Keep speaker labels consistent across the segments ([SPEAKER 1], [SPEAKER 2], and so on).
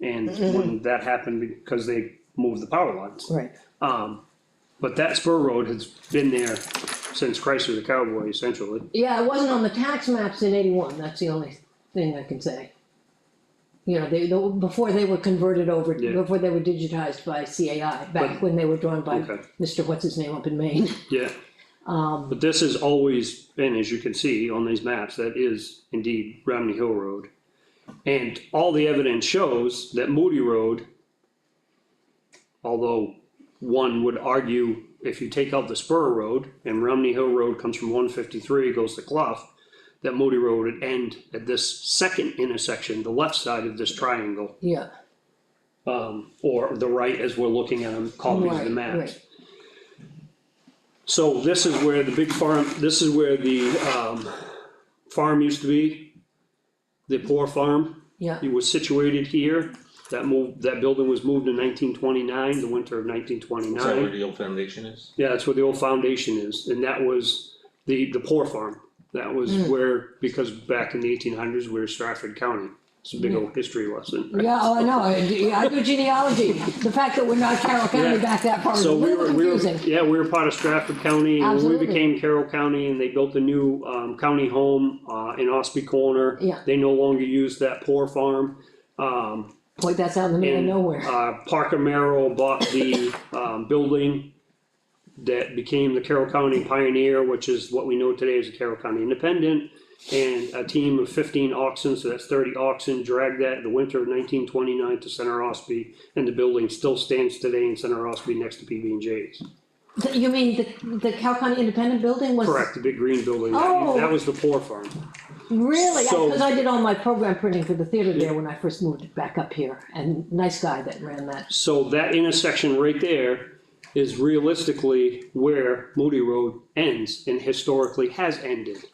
[SPEAKER 1] And when that happened, because they moved the power lines.
[SPEAKER 2] Right,
[SPEAKER 1] But that spur road has been there since Christ was a cowboy essentially.
[SPEAKER 2] yeah, it wasn't on the tax maps in eighty-one, that's the only thing I can say. You know, they, the- before they were converted over,
[SPEAKER 1] Yeah.
[SPEAKER 2] before they were digitized by CAI,
[SPEAKER 1] But-
[SPEAKER 2] back when they were drawn by
[SPEAKER 1] Okay.
[SPEAKER 2] Mr. What's His Name up in Maine.
[SPEAKER 1] Yeah.
[SPEAKER 2] Um,
[SPEAKER 1] But this has always been, as you can see on these maps, that is indeed Romney Hill Road. And all the evidence shows that Moody Road, although one would argue if you take out the spur road and Romney Hill Road comes from one fifty-three, goes to Clough, that Moody Road would end at this second intersection, the left side of this triangle,
[SPEAKER 2] Yeah,
[SPEAKER 1] or the right as we're looking at them, copies of the
[SPEAKER 2] Right,
[SPEAKER 1] maps.
[SPEAKER 2] right.
[SPEAKER 1] So this is where the big farm, this is where the, um, farm used to be. The poor farm,
[SPEAKER 2] yeah,
[SPEAKER 1] it was situated here, that moved, that building was moved in nineteen twenty-nine, the winter of nineteen twenty-nine.
[SPEAKER 3] Is that where the old foundation is?
[SPEAKER 1] Yeah, that's where the old foundation is, and that was the, the poor farm. That was
[SPEAKER 3] Hmm.
[SPEAKER 1] where, because back in the eighteen hundreds, we were Stratford County. It's a big
[SPEAKER 3] Hmm.
[SPEAKER 1] old history lesson.
[SPEAKER 2] yeah, oh, I know, I do- I do genealogy, the fact that we're not Carroll County
[SPEAKER 1] Yeah.
[SPEAKER 2] back that far is a
[SPEAKER 1] So we
[SPEAKER 2] little
[SPEAKER 1] were, we were,
[SPEAKER 2] confusing.
[SPEAKER 1] yeah, we were part of Stratford County, and when we
[SPEAKER 2] Absolutely.
[SPEAKER 1] became Carroll County, and they built a new, um, county home, uh, in Ospey Corner.
[SPEAKER 2] Yeah.
[SPEAKER 1] They no longer use that poor farm.
[SPEAKER 2] Boy, that's out in the middle of
[SPEAKER 1] And,
[SPEAKER 2] nowhere,
[SPEAKER 1] Uh, Parker Merrill bought the, um, building that became the Carroll County Pioneer, which is what we know today as the Carroll County Independent. And a team of fifteen oxen, so that's thirty oxen, dragged that in the winter of nineteen twenty-nine to Center Ospey. And the building still stands today in Center Ospey next to PB and J's.
[SPEAKER 2] Th- you mean the, the Carroll County Independent Building was?
[SPEAKER 1] Correct, the big green building. That that
[SPEAKER 2] Oh.
[SPEAKER 1] was the poor farm.
[SPEAKER 2] Really?
[SPEAKER 1] So-
[SPEAKER 2] Because I did all my program printing for the theater there when I first moved back up here, and nice guy that ran that.
[SPEAKER 1] So that intersection right there is realistically where Moody Road ends and historically has ended.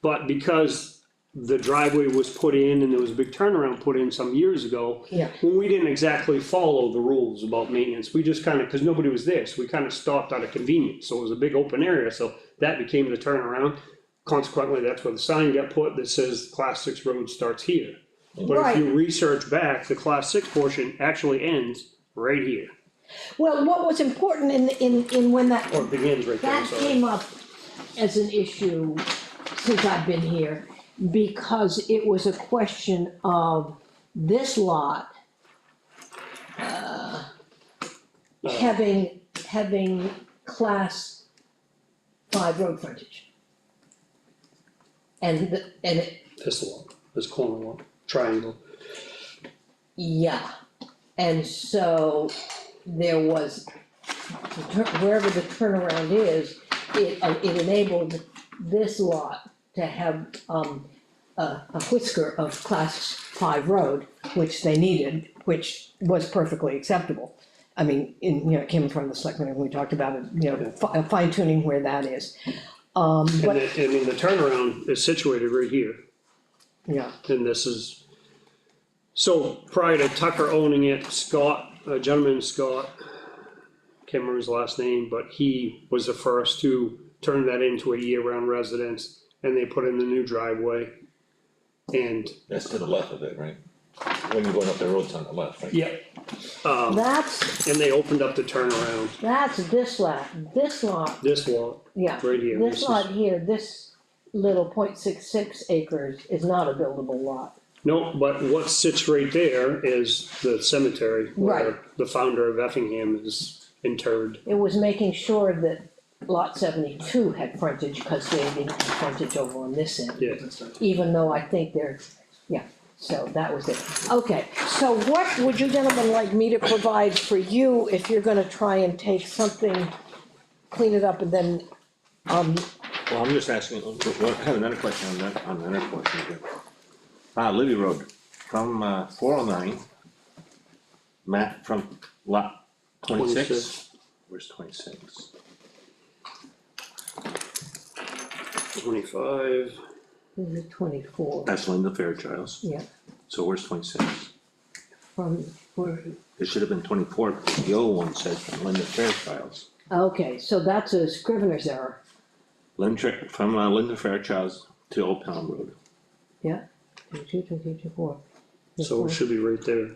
[SPEAKER 1] But because the driveway was put in and there was a big turnaround put in some years ago.
[SPEAKER 2] Yeah.
[SPEAKER 1] Well, we didn't exactly follow the rules about maintenance. We just kinda, cause nobody was there, so we kinda stopped out of convenience. So it was a big open area, so that became the turnaround. Consequently, that's where the sign got put that says class six road starts here. But if you research back, the class six portion actually ends right here,
[SPEAKER 2] Well, what was important in, in, in when that,
[SPEAKER 1] or begins right there,
[SPEAKER 2] that
[SPEAKER 1] Oh, sorry.
[SPEAKER 2] came up as an issue since I've been here, because it was a question of this lot uh,
[SPEAKER 1] Uh, Uh-huh.
[SPEAKER 2] having, having class five road frontage. And, the- and it
[SPEAKER 1] This one, this corner one, triangle.
[SPEAKER 2] Yeah, and so there was, the tur- wherever the turnaround is, it, uh, it enabled this lot to have, um, a, a whisker of class five road, which they needed, which was perfectly acceptable. I mean, in, you know, it came from the selectmen, and we talked about it, you know, fi- fine tuning where that is,
[SPEAKER 1] And it, I mean, the turnaround is situated right here,
[SPEAKER 2] yeah.
[SPEAKER 1] and this is. So prior to Tucker owning it, Scott, a gentleman, Scott, can't remember his last name, but he was the first to turn that into a year-round residence, and they put in the new driveway. And,
[SPEAKER 3] That's to the left of it, right? When you're going up the road, it's on the left, right?
[SPEAKER 1] yep,
[SPEAKER 2] That's,
[SPEAKER 1] and they opened up the turnaround,
[SPEAKER 2] that's this lot, this lot
[SPEAKER 1] this lot,
[SPEAKER 2] Yeah,
[SPEAKER 1] Right here, this
[SPEAKER 2] this
[SPEAKER 1] is-
[SPEAKER 2] lot here, this little point six six acres is not a buildable lot.
[SPEAKER 1] No, but what sits right there is the cemetery where
[SPEAKER 2] Right.
[SPEAKER 1] the founder of Effingham is interred.
[SPEAKER 2] It was making sure that lot seventy-two had frontage, cause they didn't have frontage over on this end.
[SPEAKER 1] Yeah,
[SPEAKER 2] Even though I think they're, yeah, so that was it. Okay, so what would you gentlemen like me to provide for you if you're gonna try and take something, clean it up and then, um,
[SPEAKER 3] Well, I'm just asking, I have another question on that, on another question here. Uh, Libby Road, from, uh, four oh nine. Matt, from lot twenty-six?
[SPEAKER 1] 26.
[SPEAKER 3] Where's twenty-six?
[SPEAKER 1] twenty-five,
[SPEAKER 2] this is twenty-four,
[SPEAKER 3] That's Linda Fairchild's,
[SPEAKER 2] yeah,
[SPEAKER 3] so where's twenty-six?
[SPEAKER 2] from, where-
[SPEAKER 3] It should have been twenty-four, because the old one said from Linda Fairchild's.
[SPEAKER 2] okay, so that's a scrivener's error,
[SPEAKER 3] Linda, from uh, Linda Fairchild's to Old Pound Road.
[SPEAKER 2] yeah? Two, two, two, two, four.
[SPEAKER 1] so it should be right there.